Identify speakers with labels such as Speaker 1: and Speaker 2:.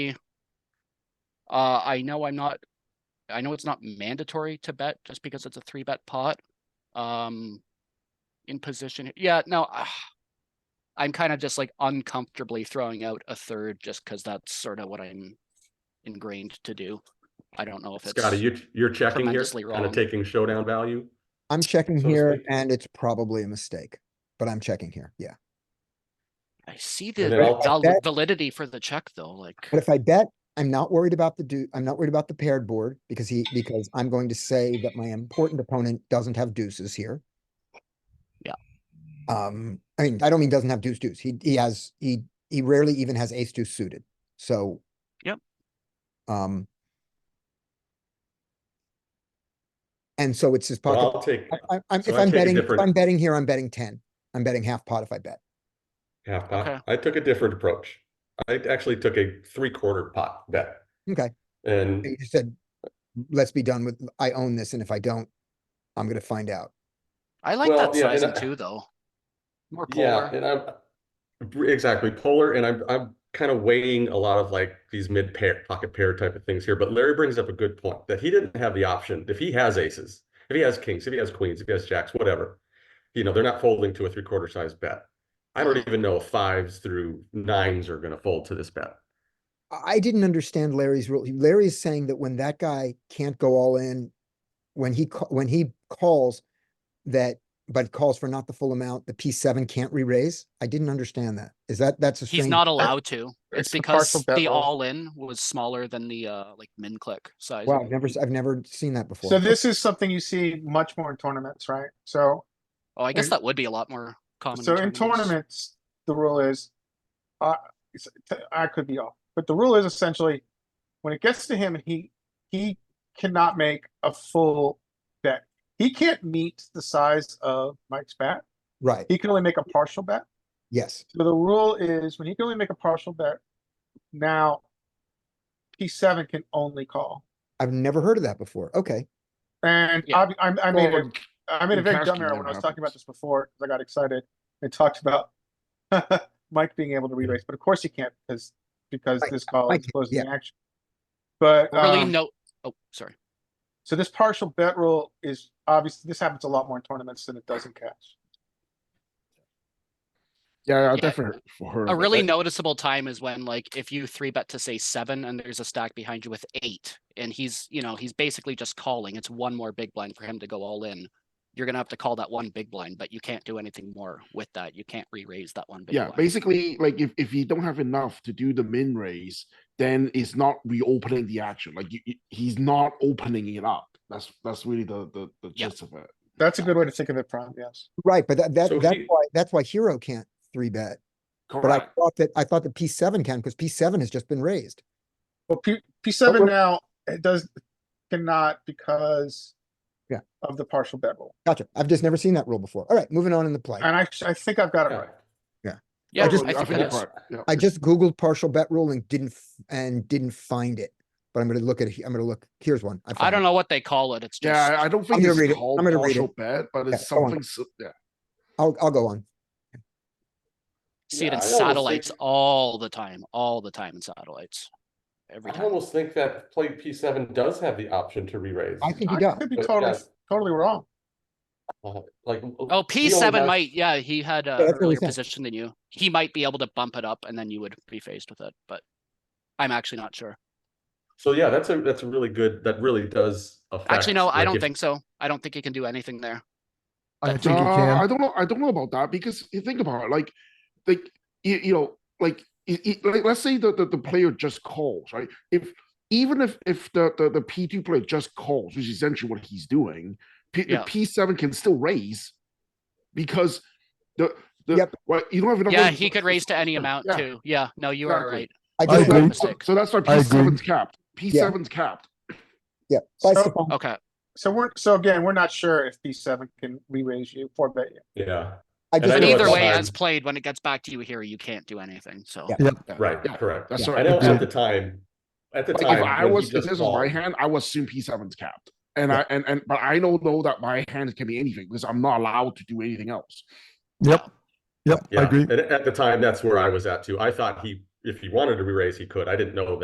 Speaker 1: Uh, I know I'm not, I know it's not mandatory to bet just because it's a three bet pot. Um, in position, yeah, no, ah, I'm kind of just like uncomfortably throwing out a third just because that's sort of what I'm ingrained to do. I don't know if it's.
Speaker 2: Scotty, you, you're checking here,
Speaker 1: tremendously
Speaker 2: kind
Speaker 1: wrong.
Speaker 2: of taking showdown value.
Speaker 3: I'm checking
Speaker 2: So to
Speaker 3: here
Speaker 2: speak.
Speaker 3: and it's probably a mistake, but I'm checking here. Yeah.
Speaker 1: I see the
Speaker 2: then I'll-
Speaker 1: val-
Speaker 3: That-
Speaker 1: validity for the check though, like,
Speaker 3: But if I bet, I'm not worried about the do, I'm not worried about the paired board because he, because I'm going to say that my important opponent doesn't have deuces here.
Speaker 1: Yeah.
Speaker 3: Um, I mean, I don't mean doesn't have deuce deuce. He, he has, he, he rarely even has ace deuce suited, so.
Speaker 1: Yep.
Speaker 3: Um. And so it's his
Speaker 2: But
Speaker 3: pocket.
Speaker 2: I'll take
Speaker 3: I, I- I'm,
Speaker 2: So
Speaker 3: if
Speaker 2: I
Speaker 3: I'm
Speaker 2: take a
Speaker 3: betting, if
Speaker 2: different-
Speaker 3: I'm betting here, I'm betting ten. I'm betting half pot if I bet.
Speaker 2: half
Speaker 1: Okay.
Speaker 2: pot. I took a different approach. I actually took a three quarter pot bet
Speaker 3: Okay.
Speaker 2: and
Speaker 3: You just said, let's be done with, I own this, and if I don't, I'm gonna find out.
Speaker 1: I like
Speaker 2: Well,
Speaker 1: that
Speaker 2: yeah, and
Speaker 1: sizing
Speaker 2: I-
Speaker 1: too, though. More
Speaker 2: Yeah,
Speaker 1: polar,
Speaker 2: and I'm br- exactly polar, and I'm I'm kind of weighing a lot of like these mid pair pocket pair type of things here. But Larry brings up a good point that he didn't have the option. If he has aces, if he has kings, if he has queens, if he has jacks, whatever, you know, they're not folding to a three quarter size bet. I don't even know if fives through nines are going to fold to this bet.
Speaker 3: I, I didn't understand Larry's rule. Larry's saying that when that guy can't go all in, when he, ca- when he calls that, but calls for not the full amount, the P seven can't re-raise. I didn't understand that. Is that, that's a strange.
Speaker 1: he's not allowed to. It's
Speaker 4: it's the partial
Speaker 1: because
Speaker 4: bet
Speaker 1: the
Speaker 4: rule.
Speaker 1: all-in was smaller than the, uh, like min click size.
Speaker 3: Wow, I've never, s- I've never seen that before.
Speaker 4: So this is something you see much more in tournaments, right? So,
Speaker 1: Oh, I guess
Speaker 4: in-
Speaker 1: that would be a lot more common.
Speaker 4: so in tournaments, the rule is, uh, it's- t- I could be off, but the rule is essentially, when it gets to him, he, he cannot make a full bet. He can't meet the size of Mike's bet.
Speaker 3: Right,
Speaker 4: He can only make a partial bet.
Speaker 3: yes,
Speaker 4: So the rule is when he can only make a partial bet, now P seven can only call.
Speaker 3: I've never heard of that before. Okay,
Speaker 4: And
Speaker 1: Yeah.
Speaker 4: I, I, I made a
Speaker 5: Well,
Speaker 4: I made a
Speaker 5: in
Speaker 4: very
Speaker 5: cash
Speaker 4: dumb
Speaker 5: game,
Speaker 4: error
Speaker 5: that
Speaker 4: when I was talking about
Speaker 5: happens.
Speaker 4: this before, because I got excited and talked about Mike being able to re-raise, but of course he can't because, because
Speaker 3: Mike-
Speaker 4: this call
Speaker 3: Mike
Speaker 4: is
Speaker 3: can't,
Speaker 4: closing
Speaker 3: yeah.
Speaker 4: the action. But,
Speaker 1: Really,
Speaker 4: um,
Speaker 1: no, oh, sorry.
Speaker 4: so this partial bet rule is obviously, this happens a lot more in tournaments than it does in cash.
Speaker 5: Yeah, I
Speaker 1: Yeah.
Speaker 5: definitely heard.
Speaker 1: A
Speaker 5: of it.
Speaker 1: really
Speaker 5: That-
Speaker 1: noticeable time is when like, if you three bet to say seven and there's a stack behind you with eight, and he's, you know, he's basically just calling. It's one more big blind for him to go all in. You're gonna have to call that one big blind, but you can't do anything more with that. You can't re-raise that one big
Speaker 5: Yeah,
Speaker 1: blind.
Speaker 5: basically, like if, if you don't have enough to do the min raise, then it's not reopening the action. Like you, you- he's not opening it up. That's that's really the the, the
Speaker 1: Yeah.
Speaker 5: gist of it.
Speaker 4: That's a good way to think of it, Prime, yes.
Speaker 3: right, but that, that,
Speaker 2: So
Speaker 3: that's
Speaker 2: he-
Speaker 3: why, that's why Hero can't three bet. But I
Speaker 5: Correct.
Speaker 3: thought that, I thought that P seven can, because P seven has just been raised.
Speaker 4: Well, P, P seven
Speaker 3: what-
Speaker 4: now, it does, cannot because
Speaker 3: Yeah.
Speaker 4: of the partial bet rule.
Speaker 3: Gotcha. I've just never seen that rule before. All right, moving on in the play.
Speaker 4: And I, I think I've got it
Speaker 2: Yeah.
Speaker 4: right.
Speaker 1: Yeah, I
Speaker 3: just-
Speaker 1: think
Speaker 5: you're
Speaker 1: that's,
Speaker 5: correct. Yeah.
Speaker 3: I just Googled partial bet rule and didn't, f- and didn't find it. But I'm gonna look at it. he- I'm gonna look, here's one.
Speaker 1: I
Speaker 3: found
Speaker 1: don't
Speaker 3: it.
Speaker 1: know what they call it. It's just.
Speaker 5: Yeah, I- I don't think
Speaker 3: gonna read
Speaker 5: it's
Speaker 3: it.
Speaker 5: called
Speaker 3: I'm gonna read
Speaker 5: partial
Speaker 3: it.
Speaker 5: bet, but it's
Speaker 3: Yeah, go on.
Speaker 5: something. So, yeah.
Speaker 3: I'll, I'll go on.
Speaker 1: See it
Speaker 2: Yeah,
Speaker 1: in
Speaker 2: I almost
Speaker 1: satellites
Speaker 2: think-
Speaker 1: all the time, all the time in satellites. Every
Speaker 2: I
Speaker 1: time.
Speaker 2: almost think that play P seven does have the option to re-raise.
Speaker 3: I think he
Speaker 4: I
Speaker 3: does.
Speaker 4: could be
Speaker 2: But
Speaker 4: totally,
Speaker 2: yes.
Speaker 4: totally wrong.
Speaker 2: Uh, Like.
Speaker 1: Oh, P seven might, yeah, he had a
Speaker 3: that's what he
Speaker 1: earlier
Speaker 3: said.
Speaker 1: position than you. He might be able to bump it up and then you would be faced with it, but I'm actually not sure.
Speaker 2: So yeah, that's a, that's a really good, that really does affect.
Speaker 1: Actually, no, I
Speaker 2: like,
Speaker 1: don't
Speaker 2: if-
Speaker 1: think so. I don't think he can do anything there.
Speaker 5: I
Speaker 1: think
Speaker 5: uh, I don't know. I don't know about that because you think about it, like, like you, you know, like, i- i- like let's say the, the the player just calls, right? If even if if the the, the P two player just calls, which is essentially what he's doing, P,
Speaker 1: Yeah.
Speaker 5: the P seven can still raise because the the
Speaker 3: Yep.
Speaker 5: well, you don't have enough.
Speaker 1: Yeah,
Speaker 5: money
Speaker 1: he
Speaker 5: for-
Speaker 1: could
Speaker 5: for-
Speaker 1: raise to any
Speaker 5: yeah,
Speaker 1: amount
Speaker 5: yeah.
Speaker 1: too. Yeah, no, you are
Speaker 5: Exactly.
Speaker 1: right.
Speaker 3: I
Speaker 1: I
Speaker 3: do.
Speaker 1: agree.
Speaker 3: agree.
Speaker 1: Mistake.
Speaker 5: So that's why
Speaker 6: I
Speaker 5: P
Speaker 6: agree.
Speaker 5: seven's capped. P seven's capped.
Speaker 3: Yeah. Bye,
Speaker 4: So-
Speaker 3: Stefan.
Speaker 1: Okay,
Speaker 4: So we're, so again, we're not sure if P seven can re-raise you, four bet you.
Speaker 2: Yeah,
Speaker 3: I
Speaker 2: and I
Speaker 3: just,
Speaker 1: but
Speaker 2: know
Speaker 1: either
Speaker 2: it's
Speaker 1: way,
Speaker 2: hard.
Speaker 1: as played, when it gets back to you here, you can't do anything, so.
Speaker 3: Yeah.
Speaker 2: right,
Speaker 5: Yeah.
Speaker 2: correct.
Speaker 5: That's
Speaker 3: Yeah.
Speaker 2: I
Speaker 5: right.
Speaker 2: know
Speaker 5: Yeah.
Speaker 2: at the time, at the
Speaker 5: Like,
Speaker 2: time.
Speaker 5: if I
Speaker 2: when he
Speaker 5: was if
Speaker 2: just
Speaker 5: this was my
Speaker 2: called-
Speaker 5: hand, I would assume P seven's capped. And
Speaker 3: Yeah.
Speaker 5: I and and but I don't know that my hand can be anything because I'm not allowed to do anything else.
Speaker 6: Yep. Yep, I
Speaker 2: Yeah,
Speaker 6: agree.
Speaker 2: and at the time, that's where I was at too. I thought he, if he wanted to re-raise, he could. I didn't know that